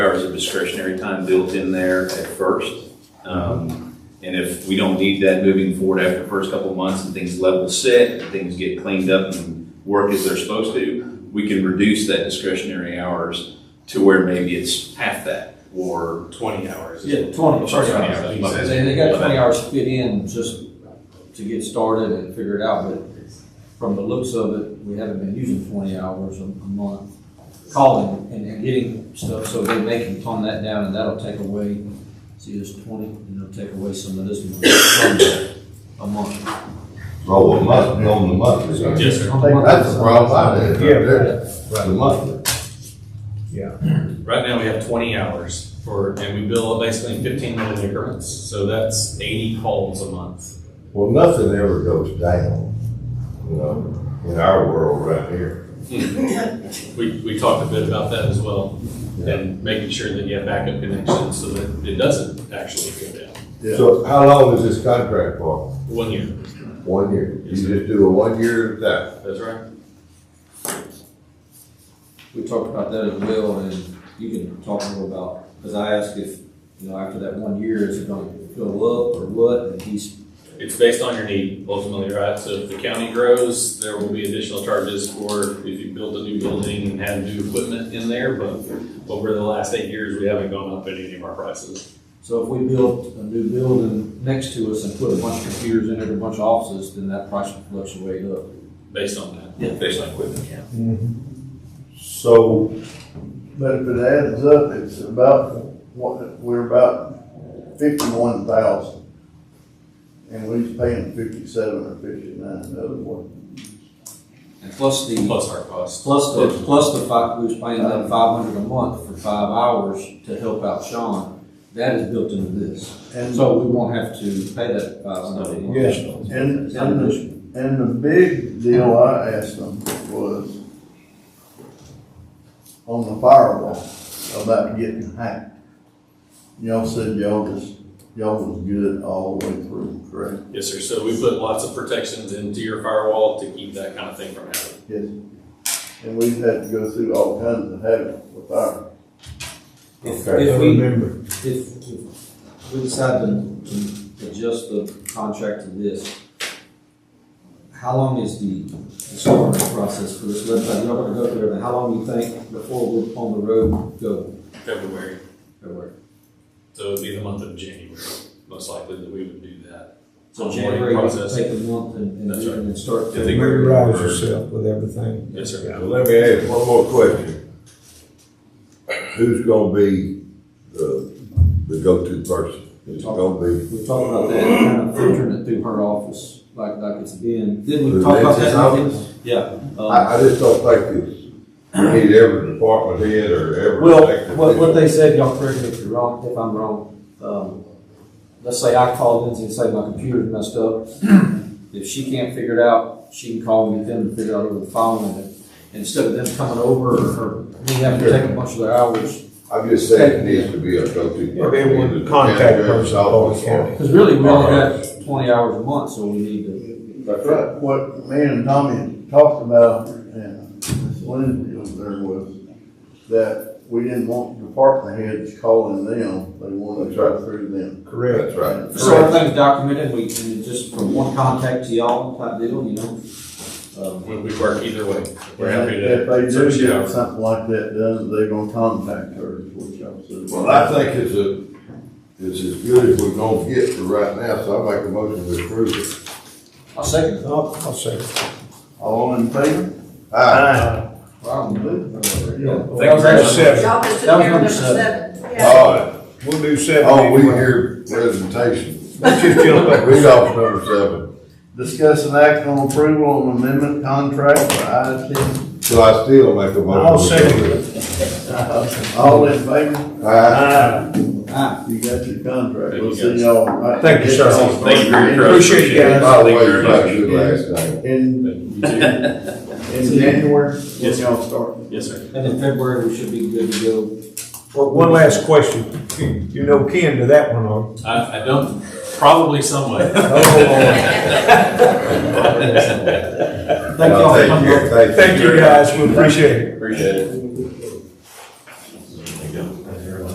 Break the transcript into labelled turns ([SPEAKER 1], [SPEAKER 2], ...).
[SPEAKER 1] hours of discretionary time built in there at first. Um, And if we don't need that moving forward after the first couple of months and things level set, and things get cleaned up and work as they're supposed to, we can reduce that discretionary hours to where maybe it's half that or
[SPEAKER 2] twenty hours.
[SPEAKER 3] Yeah, twenty, Oh, sorry.
[SPEAKER 1] Twenty
[SPEAKER 3] guys.
[SPEAKER 1] hours.
[SPEAKER 3] They, they got twenty hours to fit in just to get started and figure it out, but from the looks of it, we haven't been using twenty hours a a month calling and, and getting stuff, so they, they can tone that down and that'll take away, see, there's twenty, and it'll take away some of this money from a month.
[SPEAKER 4] So it must be on the monthly.
[SPEAKER 2] Yes, sir.
[SPEAKER 4] I think that's the problem I did, right there, the monthly.
[SPEAKER 2] Right now, we have twenty hours for, and we bill basically fifteen minute increments, so that's eighty calls a month.
[SPEAKER 4] Well, nothing ever goes down, you know, in our world right here.
[SPEAKER 2] We, we talked a bit about that as well, and making sure that you have backup connections so that it doesn't actually go down.
[SPEAKER 4] So how long is this contract for?
[SPEAKER 2] One year,
[SPEAKER 4] One year. You
[SPEAKER 2] Yes, sir.
[SPEAKER 4] just do a one year of that.
[SPEAKER 2] that's right.
[SPEAKER 3] We talked about that as well, and you can talk a little about, cause I asked if, you know, after that one year, is it gonna go up or what, and he's,
[SPEAKER 2] It's based on your need ultimately, right? So if the county grows, there will be additional charges for if you build a new building and have new equipment in there, but over the last eight years, we haven't gone up in any of our prices.
[SPEAKER 3] So if we built a new building next to us and put a bunch of computers in it, a bunch of offices, then that price would fluctuate up.
[SPEAKER 2] based on that.
[SPEAKER 3] Yeah.
[SPEAKER 2] Based on equipment.
[SPEAKER 5] So, but if it adds up, it's about, what, we're about fifty-one thousand. And we're paying fifty-seven or fifty-nine, in other words.
[SPEAKER 3] And plus the,
[SPEAKER 2] Plus our cost.
[SPEAKER 3] plus the, plus the five, we was paying them five hundred a month for five hours to help out Sean. That is built into this. And
[SPEAKER 5] And,
[SPEAKER 3] so we won't have to pay that five hundred a month.
[SPEAKER 5] Yes. and,
[SPEAKER 3] Not
[SPEAKER 5] and the
[SPEAKER 3] additional.
[SPEAKER 5] And the big deal I asked them was on the firewall about getting hacked. Y'all said y'all was, y'all was good all the way through, correct?
[SPEAKER 2] Yes, sir. So we put lots of protections into your firewall to keep that kind of thing from happening.
[SPEAKER 5] Yes. And we've had to go through all kinds of havoc with our,
[SPEAKER 3] If,
[SPEAKER 4] Okay.
[SPEAKER 3] if we, if, if we decide to, to adjust the contract to this, how long is the discovery process for this website? You're not gonna go through everything. How long do you think before we're on the road go
[SPEAKER 2] February,
[SPEAKER 3] everywhere?
[SPEAKER 2] so it'd be the month of January, most likely that we would do that.
[SPEAKER 3] So
[SPEAKER 2] Onboarding
[SPEAKER 3] January, we can
[SPEAKER 2] process.
[SPEAKER 3] take a month and, and
[SPEAKER 2] That's
[SPEAKER 3] do it and start.
[SPEAKER 2] If they
[SPEAKER 3] February.
[SPEAKER 6] familiarize yourself with everything.
[SPEAKER 2] Yes, sir.
[SPEAKER 4] Now, let me ask one more question. Who's gonna be the, the go-to person? Is it gonna be?
[SPEAKER 3] We talked about that, kind of filtering it through her office, like, like it's been. Didn't we
[SPEAKER 4] the
[SPEAKER 3] talk about
[SPEAKER 4] Lexus
[SPEAKER 3] that?
[SPEAKER 4] office?
[SPEAKER 3] Yeah. um,
[SPEAKER 4] I, I just don't think it's, we need every department head or every.
[SPEAKER 3] Well,
[SPEAKER 4] elected
[SPEAKER 3] what, what
[SPEAKER 4] official.
[SPEAKER 3] they said, y'all correct me if you're wrong, if I'm wrong, um, let's say I called Lindsay and say my computer's messed up. If she can't figure it out, she can call me then to figure it out over the phone and instead of them coming over or, or me having to take a bunch of their hours.
[SPEAKER 4] I'm just saying it needs to be a go-to.
[SPEAKER 6] Yeah, they want
[SPEAKER 4] person, either the
[SPEAKER 6] contact
[SPEAKER 4] county judge's
[SPEAKER 6] person or
[SPEAKER 4] office
[SPEAKER 6] county.
[SPEAKER 4] or-
[SPEAKER 3] Cause really, we only got twenty hours a month, so we need to,
[SPEAKER 5] That's right. What me and Tommy talked about, and Miss Lindsay was there was, that we didn't want department heads calling them, they wanted to try through them.
[SPEAKER 6] Correct.
[SPEAKER 4] That's right.
[SPEAKER 3] so everything's documented, we can just from one contact to y'all type deal, you know? Um,
[SPEAKER 2] We, we work either way. We're happy
[SPEAKER 5] If
[SPEAKER 2] to.
[SPEAKER 5] they do
[SPEAKER 2] search it
[SPEAKER 5] get
[SPEAKER 2] out.
[SPEAKER 5] something like that done, they gonna contact her, is what y'all said.
[SPEAKER 4] Well, I think it's a, it's as good as we're gonna get for right now, so I make a motion to approve it.
[SPEAKER 3] I'll second it.
[SPEAKER 6] I'll, I'll say,
[SPEAKER 5] All in favor?
[SPEAKER 4] Aye.
[SPEAKER 3] Wow.
[SPEAKER 5] Yeah.
[SPEAKER 3] That was
[SPEAKER 6] that's
[SPEAKER 3] actually-
[SPEAKER 6] seven.
[SPEAKER 7] Y'all just
[SPEAKER 3] That was
[SPEAKER 7] took care of
[SPEAKER 3] number
[SPEAKER 7] number
[SPEAKER 3] seven.
[SPEAKER 7] seven.
[SPEAKER 4] All right.
[SPEAKER 6] We'll do seven.
[SPEAKER 4] Oh, we hear presentation.
[SPEAKER 6] Let's just jump back.
[SPEAKER 4] Read off number seven.
[SPEAKER 5] Discuss an act on approval of amendment contract for IT.
[SPEAKER 4] So I still make a motion.
[SPEAKER 6] I'll second
[SPEAKER 4] it.
[SPEAKER 5] All in favor?
[SPEAKER 4] Aye.
[SPEAKER 3] Ah,
[SPEAKER 5] You got your contract.
[SPEAKER 2] Thank
[SPEAKER 5] We'll
[SPEAKER 2] you,
[SPEAKER 5] see y'all.
[SPEAKER 6] Thank you, sir.
[SPEAKER 2] Thank you for your trust.
[SPEAKER 6] Appreciate you guys.
[SPEAKER 4] By the
[SPEAKER 2] Thank
[SPEAKER 4] way,
[SPEAKER 2] you very
[SPEAKER 4] you got a
[SPEAKER 2] much.
[SPEAKER 4] good last name.
[SPEAKER 5] In,
[SPEAKER 2] You too.
[SPEAKER 5] in January, when
[SPEAKER 2] Yes, sir.
[SPEAKER 5] y'all start.
[SPEAKER 2] Yes, sir.
[SPEAKER 3] and in February, we should be good to go.
[SPEAKER 6] Well, one last question. Oh, You know Ken to that one, on.
[SPEAKER 2] I, I don't, probably some way.
[SPEAKER 6] oh,
[SPEAKER 3] Thank y'all for coming.
[SPEAKER 4] Thank you.
[SPEAKER 6] Thank you, guys. We appreciate it.
[SPEAKER 2] Appreciate it.